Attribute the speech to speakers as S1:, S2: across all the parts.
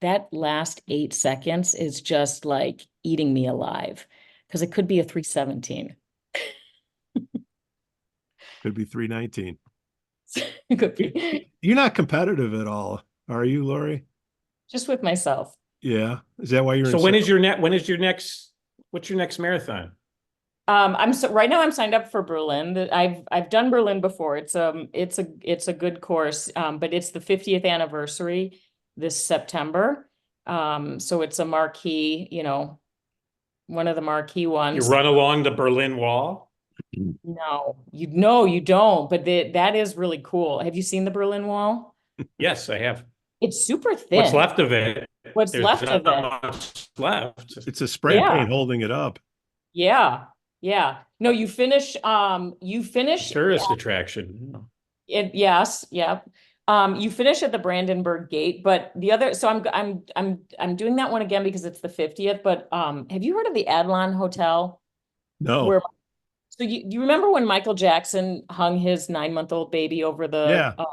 S1: that last eight seconds is just like eating me alive. Cause it could be a three seventeen.
S2: Could be three nineteen.
S1: It could be,
S2: You're not competitive at all, are you, Lori?
S1: just with myself.
S2: Yeah. Is that why you're?
S3: So
S2: in
S3: when
S2: sec-
S3: is your net, when is your next, what's your next marathon?
S1: Um, I'm so, right now I'm signed up for Berlin. The- I've, I've done Berlin before. It's, um, it's a, it's a good course. Um, but it's the fiftieth anniversary this September. Um, so it's a marquee, you know, one of the marquee
S3: You
S1: ones.
S3: run along the Berlin Wall?
S1: No, you, no, you don't, but the, that is really cool. Have you seen the Berlin Wall?
S3: Yes, I have.
S1: It's super thin.
S3: What's left of it?
S1: What's
S3: There's
S1: left of
S3: not
S1: it.
S3: much Left.
S2: It's a spray
S1: Yeah.
S2: paint holding it up.
S1: Yeah, yeah. No, you finish, um, you finish
S3: Tourist attraction.
S1: It, yes, yep. Um, you finish at the Brandenburg Gate, but the other, so I'm, g- I'm, I'm, I'm doing that one again because it's the fiftieth, but, um, have you heard of the Adlon Hotel?
S2: No.
S1: Where, so you, you remember when Michael Jackson hung his nine-month-old baby over the?
S2: Yeah.
S1: uh,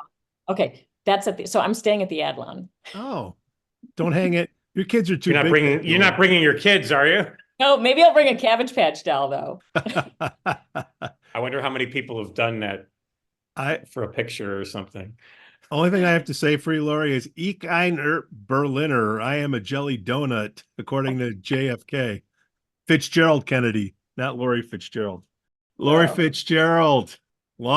S1: Okay, that's at the, so I'm staying at the Adlon.
S2: Oh, don't hang it. Your kids are too
S3: You're not
S2: big.
S3: bringing, you're not bringing your kids, are you?
S1: No, Oh, maybe I'll bring a Cabbage Patch doll though.
S3: I wonder how many people have done that
S2: I,
S3: for a picture or something.
S2: only thing I have to say for you, Lori, is ich ein Er- Berliner. I am a jelly donut, according to JFK. Fitzgerald Kennedy, not Lori Fitzgerald. Lori
S1: Wow.
S2: Fitzgerald,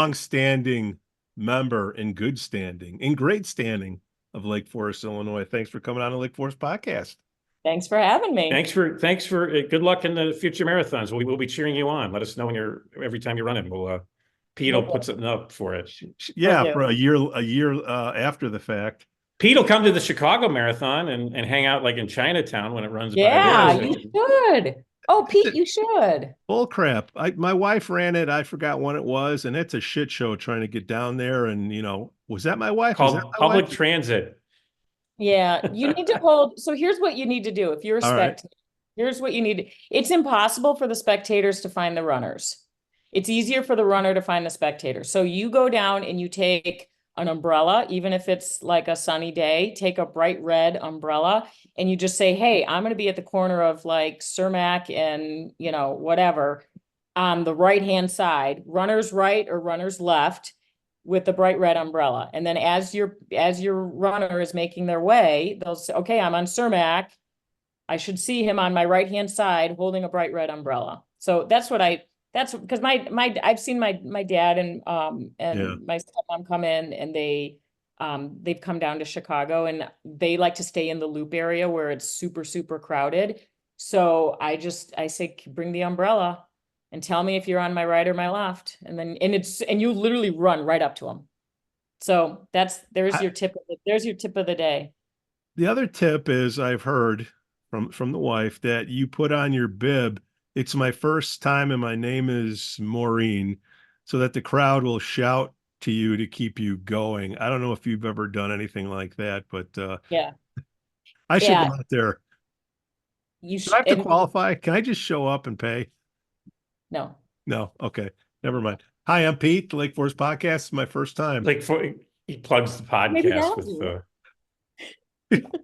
S2: longstanding member in good standing, in great standing of Lake Forest, Illinois. Thanks for coming on the Lake Forest podcast.
S1: Thanks for having me.
S3: Thanks for, thanks for, uh, good luck in the future marathons. We will be cheering you on. Let us know when you're, every time you're running, we'll, uh, Pete will put something up for it.
S2: Yeah,
S1: you.
S2: for a year, a year uh, after the fact.
S3: Pete will come to the Chicago Marathon and, and hang out like in Chinatown when it runs. by
S1: Yeah,
S3: there.
S1: you should. Oh, Pete, you should.
S2: Bull crap. I, my wife ran it. I forgot when it was, and it's a shit show trying to get down there. And you know, was that my wife? Was
S3: Called
S2: that my
S3: public
S2: wife?
S3: transit.
S1: Yeah, you need to hold, so here's what you need to do if you're a
S2: All right.
S1: spectator. Here's what you need. It's impossible for the spectators to find the runners. It's easier for the runner to find the spectator. So you go down and you take an umbrella, even if it's like a sunny day, take a bright red umbrella and you just say, "Hey, I'm going to be at the corner of like Cermak and, you know, whatever on the right-hand side, runner's right or runner's left." with the bright red umbrella. And then as your, as your runner is making their way, they'll say, okay, I'm on Cermak. I should see him on my right-hand side holding a bright red umbrella. So that's what I, that's because my, my, I've seen my, my dad and, um,
S2: Yeah.
S1: and my stepmom come in and they, um, they've come down to Chicago and they like to stay in the loop area where it's super, super crowded. So I just, I say, "C- bring the umbrella and tell me if you're on my right or my left. And then, and it's, and you literally run right up to them. So that's, there's
S2: I-
S1: your tip, of the- there's your tip of the day.
S2: The other tip is I've heard from from the wife that you put on your bib. It's my first time, and my name is Maureen, so that the crowd will shout to you to keep you going. I don't know if you've ever done anything like that, but uh,
S1: Yeah.
S2: I should
S1: Yeah.
S2: go out there.
S1: You
S2: Do I have to
S1: should,
S2: qualify? Can I just show up and pay?
S1: no,
S2: No. Okay. Never mind. Hi, I'm Pete, the Lake Forest Podcast. It's my first time.
S3: Like for, he plugs the
S1: Maybe that'll
S3: podcast with
S1: do it.
S3: the.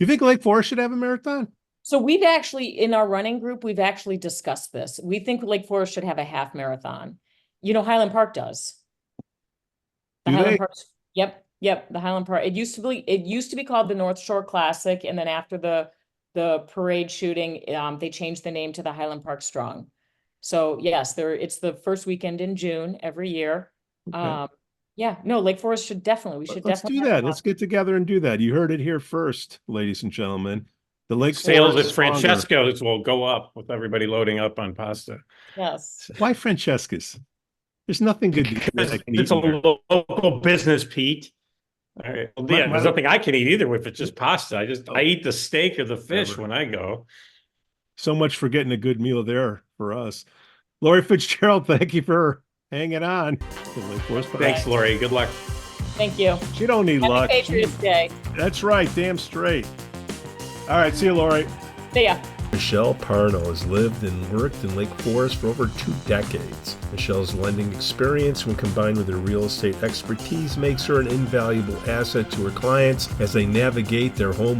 S2: you think Lake Forest should have a marathon?
S1: so we've actually, in our running group, we've actually discussed this. We think Lake Forest should have a half marathon. You know, Highland Park does. The
S2: Do
S1: Highland
S2: they?
S1: Parks- Yep, yep, the Highland Park. It used to be, it used to be called the North Shore Classic, and then after the, the parade shooting, um, they changed the name to the Highland Park Strong. So yes, there, it's the first weekend in June every year.
S2: Okay.
S1: Um, yeah, no, Lake Forest should definitely, we should
S2: Let's
S1: definitely.
S2: do
S1: have a
S2: that.
S1: half.
S2: Let's get together and do that. You heard it here first, ladies and gentlemen. The Lake
S3: Sales
S2: Forest
S3: at
S2: Stronger-
S3: Francesco's will go up with everybody loading up on pasta.
S1: Yes,
S2: Why Francesca's? There's nothing good. to eat that I can eat
S3: It's a
S2: in there.
S3: lo- local business, Pete. All right. Well,
S2: My-
S3: yeah, there's
S2: my-
S3: nothing I can eat either if it's just pasta. I just, I eat the steak or the fish
S2: Whatever.
S3: when I go.
S2: So much for getting a good meal there for us. Lori Fitzgerald, thank you for hanging on. The Lake Forest
S3: Thanks,
S2: Podcast.
S3: Lori. Good luck.
S1: thank you.
S2: She don't need
S1: Happy
S2: luck.
S1: Patriots Day.
S2: That's right. Damn straight. All right. See you, Lori.
S1: See ya.
S4: Michelle Parno has lived and worked in Lake Forest for over two decades. Michelle's lending experience, when combined with her real estate expertise, makes her an invaluable asset to her clients as they navigate their home